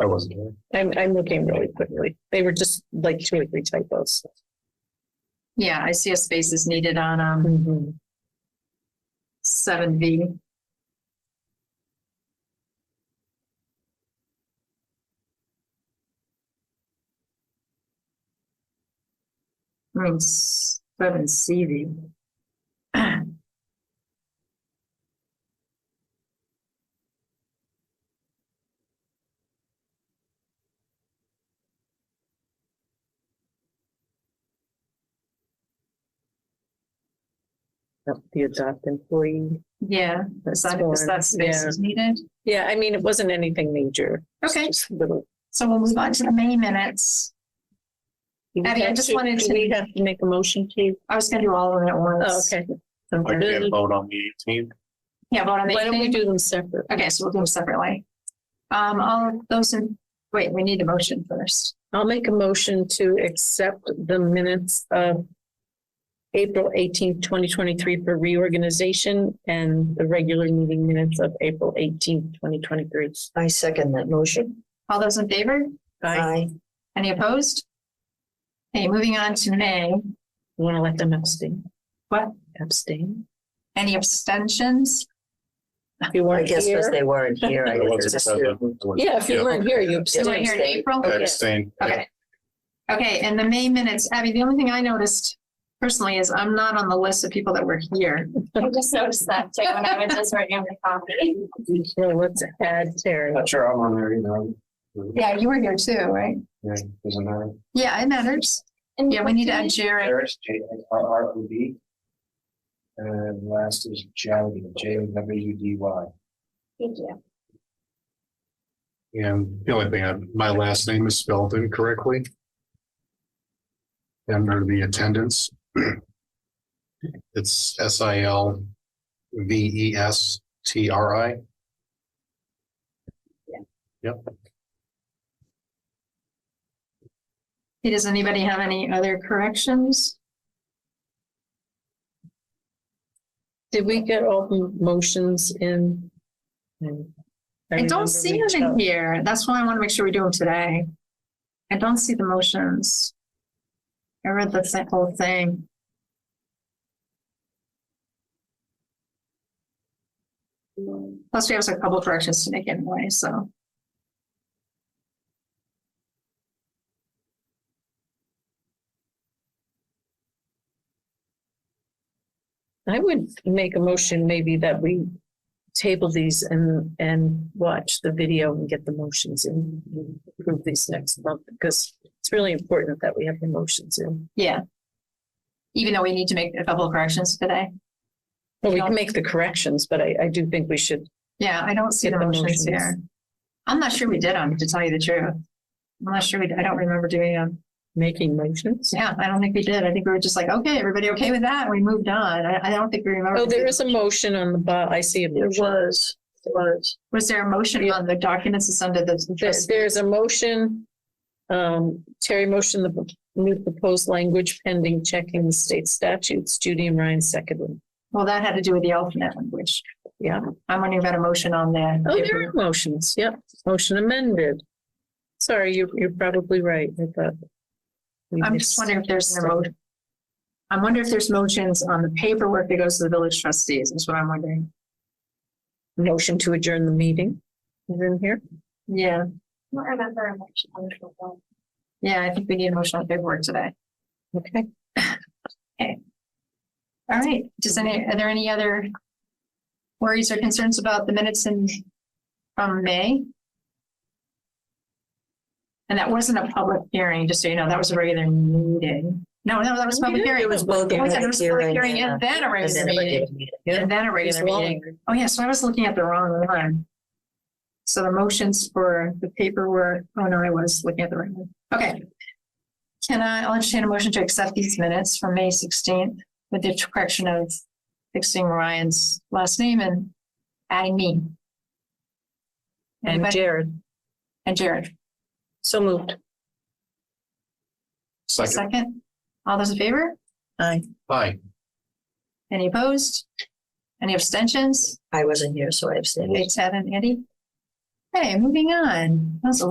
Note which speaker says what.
Speaker 1: I wasn't here.
Speaker 2: I'm, I'm looking really quickly. They were just like two or three typos.
Speaker 3: Yeah, I see a space is needed on, um,
Speaker 2: Mm-hmm.
Speaker 3: seven V. I mean, s- seven C V.
Speaker 2: The adopt employee.
Speaker 3: Yeah, is that, is that space is needed?
Speaker 2: Yeah, I mean, it wasn't anything major.
Speaker 3: Okay,
Speaker 2: Just little.
Speaker 3: so we'll move on to the May minutes.
Speaker 2: Do we
Speaker 3: Abby, I
Speaker 2: have
Speaker 3: just wanted
Speaker 2: do
Speaker 3: to-
Speaker 2: We have to make a motion to.
Speaker 3: I was gonna do all of them at
Speaker 2: Oh,
Speaker 3: once.
Speaker 2: okay.
Speaker 1: I can't vote on the eighteenth.
Speaker 3: Yeah, vote on the.
Speaker 2: Why don't we
Speaker 3: eighteenth.
Speaker 2: do them separate?
Speaker 3: Okay, so we'll do them separately. Um, all of those in, wait, we need a motion first.
Speaker 2: I'll make a motion to accept the minutes of April eighteenth, twenty twenty-three for reorganization and the regular meeting minutes of April eighteenth, twenty twenty-three.
Speaker 4: I second that motion.
Speaker 3: All those in favor? Any opposed? Okay, moving on to May.
Speaker 2: Want to let them abstain?
Speaker 3: What?
Speaker 2: Abstain?
Speaker 3: Any abstentions?
Speaker 2: If you
Speaker 4: I
Speaker 2: weren't
Speaker 4: guess because
Speaker 2: here.
Speaker 4: they weren't here. I
Speaker 1: I wasn't
Speaker 4: guess.
Speaker 1: present.
Speaker 2: Yeah, if you weren't here, you
Speaker 3: Is
Speaker 2: abstained.
Speaker 3: it here in April?
Speaker 1: I abstained.
Speaker 3: Okay. Okay, and the May minutes, Abby, the only thing I noticed personally is I'm not on the list of people that were here.
Speaker 5: I just noticed that too when I was just writing the copy.
Speaker 2: So let's add Terry.
Speaker 1: Not sure I'm on there either.
Speaker 3: Yeah, you were here too, right?
Speaker 1: Yeah, isn't that?
Speaker 3: Yeah, it matters. Yeah, we need to add Jared.
Speaker 1: Harris, J R R O D. And last is Jowdy, J W U D Y.
Speaker 5: Thank you.
Speaker 1: And the only thing, I- my last name is spelled incorrectly. Under the attendance. It's S I L V E S T R I. Yep,
Speaker 3: Hey, Does anybody have any other corrections?
Speaker 2: Did we get all the motions in? I
Speaker 3: I
Speaker 2: remember
Speaker 3: don't see
Speaker 2: we-
Speaker 3: it in here. That's why I want to make sure we do them today. I don't see the motions. I read the thi- whole thing. Plus, we have a couple corrections to make anyway, so.
Speaker 2: I would make a motion maybe that we table these and, and watch the video and get the motions in. and Approve these next month because it's really important that we have the motions in.
Speaker 3: Yeah. Even though we need to make a couple of corrections today.
Speaker 2: Well, we can make the corrections, but I, I do think we should.
Speaker 3: Yeah, I don't see the
Speaker 2: Get the
Speaker 3: motions
Speaker 2: motions.
Speaker 3: here. I'm not sure we did them, to tell you the truth. I'm not sure we, I don't remember doing them.
Speaker 2: Making motions?
Speaker 3: Yeah, I don't think we did. I think we were just like, okay, everybody okay with that? And we moved on. I, I don't think we remember.
Speaker 2: Oh, there is a motion on the bo, I see a
Speaker 4: There
Speaker 2: motion.
Speaker 4: was, there was.
Speaker 3: Was there a motion on the documents that's under
Speaker 2: There's,
Speaker 3: the?
Speaker 2: there's a motion. Um, Terry motion, the new proposed language pending checking the state statutes. Judy and Ryan seconded.
Speaker 3: Well, that had to do with the alternate language.
Speaker 2: Yeah.
Speaker 3: I'm wondering about a motion on that.
Speaker 2: Oh, there are motions. Yep. Motion amended. Sorry, you, you're probably right. I thought. we
Speaker 3: I'm
Speaker 2: missed.
Speaker 3: just wondering if there's a motion. I wonder if there's motions on the paperwork that goes to the village trustees, is what I'm wondering.
Speaker 2: Motion to adjourn the meeting. Is in here?
Speaker 3: Yeah,
Speaker 5: I don't remember a motion on the proposal.
Speaker 3: yeah, I think we need a motion on paperwork today.
Speaker 2: Okay.
Speaker 3: All right, does any, are there any other worries or concerns about the minutes in, from May? And that wasn't a public hearing, just so you know, that was a regular meeting. No, no, that was a public hearing.
Speaker 4: It was both.
Speaker 3: Oh, yeah, There
Speaker 4: public
Speaker 3: was a public
Speaker 4: hearing
Speaker 3: hearing and then a
Speaker 4: and
Speaker 3: regular
Speaker 4: then a
Speaker 3: meeting,
Speaker 4: regular meeting.
Speaker 3: and then a regular meeting. Oh, yeah, so I was looking at the wrong one. So the motions for the paperwork, oh, no, I was looking at the right one. Okay. Can I, I'll entertain a motion to accept these minutes from May sixteenth with the correction of fixing Ryan's last name and adding me.
Speaker 2: And
Speaker 3: Anybody-
Speaker 2: Jared,
Speaker 3: And Jared,
Speaker 2: so moved.
Speaker 1: second,
Speaker 3: second. All those in favor?
Speaker 2: Aye.
Speaker 1: aye,
Speaker 3: Any opposed? Any abstentions?
Speaker 4: I wasn't here, so I abstained.
Speaker 3: Eight, seven, Andy? Okay, moving on. That was a